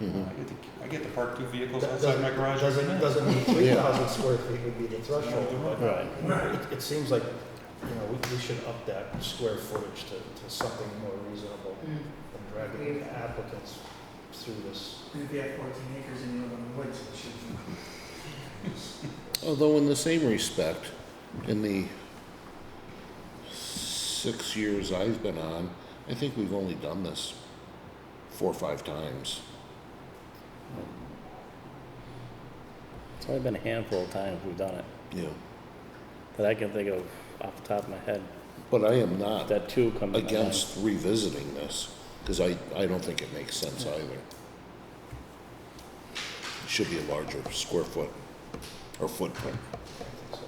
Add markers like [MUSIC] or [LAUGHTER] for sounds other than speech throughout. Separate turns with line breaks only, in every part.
Mhm.
I get to, I get to park two vehicles
That
outside
Doesn't,
my garage every
doesn't,
night.
doesn't mean three
Yeah.
thousand square feet would be the threshold.
Right.
It, it seems like, you know, we, we should up that square footage to, to something more reasonable
Mm.
than dragging the applicants through this.
And if you have fourteen acres and you live in the woods, it should be.
Although in the same respect, in the six years I've been on, I think we've only done this four or five times.
It's only been a handful of times we've done it,
Yeah.
that I can think of off the top of my head.
But I am not
That two comes to my mind.
against revisiting this, because I, I don't think it makes sense either. Should be a larger square foot or footprint,
I think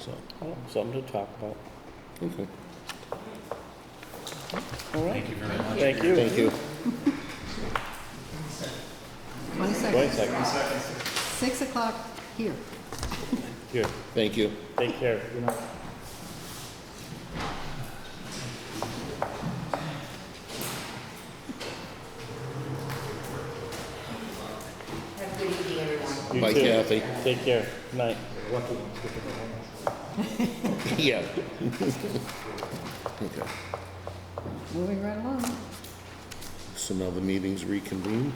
so.
so,
Well, Oh, Something to talk about.
okay.
All right,
Thank you very much.
thank you.
Thank you.
Twenty
Wait a
seconds,
second,
six o'clock here.
here,
Thank you. [LAUGHS]
take care.
You know,
Have a good evening, everyone.
You
Bye,
too.
Kathy.
Take care, night.
the lucky ones get to go home.
Yeah. [LAUGHS] Okay,
Moving right along.
so now the meeting's reconvened?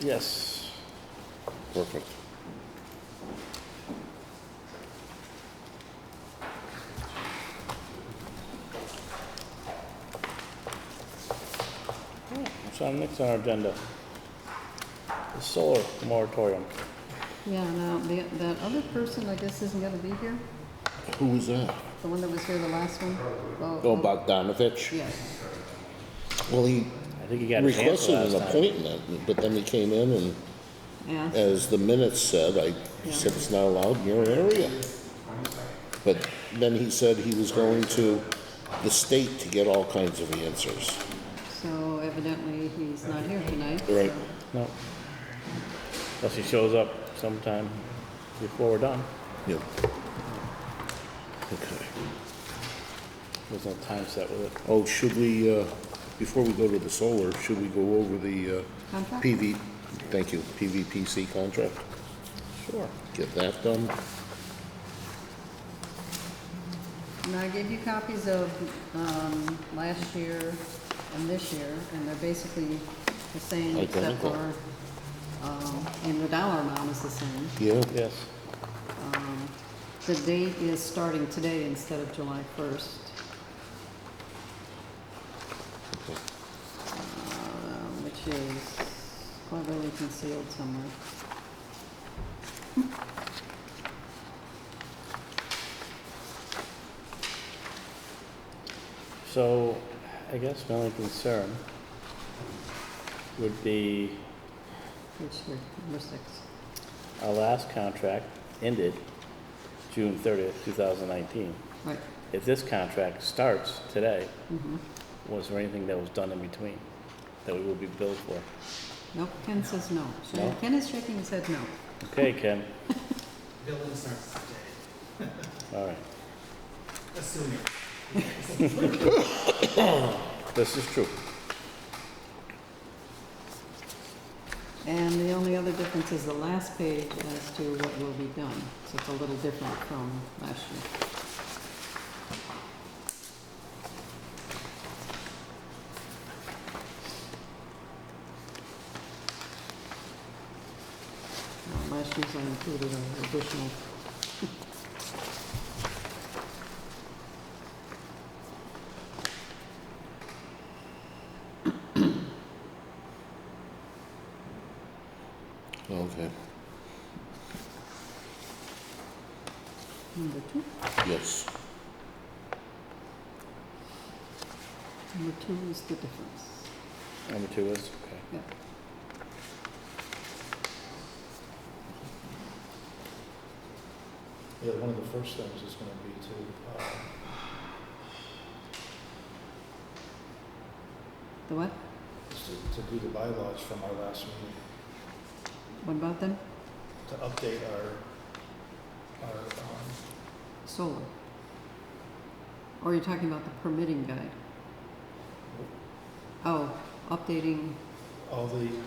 Yes.
Perfect.
So next on our agenda, the solar moratorium.
Yeah, now, the, that other person, I guess, isn't gonna be here,
Who was that?
the one that was here the last one?
Oh, Bogdanovich?
Yeah,
Well, he
I think you got it
requested
canceled
an
last time.
appointment, but then he came in and,
yeah,
as the minutes said, I said it's not allowed in your area. But then he said he was going to the state to get all kinds of answers.
so evidently he's not here tonight.
Right.
so-
No. Unless he shows up sometime before we're done.
Yep. Okay.
There's no time set with it.
Oh, should we, uh, before we go to the solar, should we go over the uh,
Contract?
PV, thank you, PVPC contract?
Sure.
Get that done?
And I gave you copies of, um, last year and this year, and they're basically the same except
Identical.
for, um, and the dollar amount is the same.
Yeah?
Yes.
Um, The date is starting today instead of July 1st. Uh, Which is cleverly concealed somewhere.
So I guess my only concern would be
Which here, number six.
our last contract ended June thirtieth, two thousand nineteen.
Right.
If this contract starts today,
mhm.
was there anything that was done in between that we will be billed for?
Nope, Ken says no.
No?
Ken is shaking his head no.
Okay, Ken,
[LAUGHS] Building starts today,
all right,
assuming.
this is true.
And the only other difference is the last page as to what will be done. So it's a little different from last year. Now, Last year's I included an additional.
Okay,
Number two?
yes.
Number two is the difference.
Number two is, okay.
Yeah, one of the first things is gonna be to, uh,
The what?
is to, to do the bylaws from our last meeting,
What about them?
to update our, our, um,
Solar. Or you're talking about the permitting guide? Oh, updating
all the,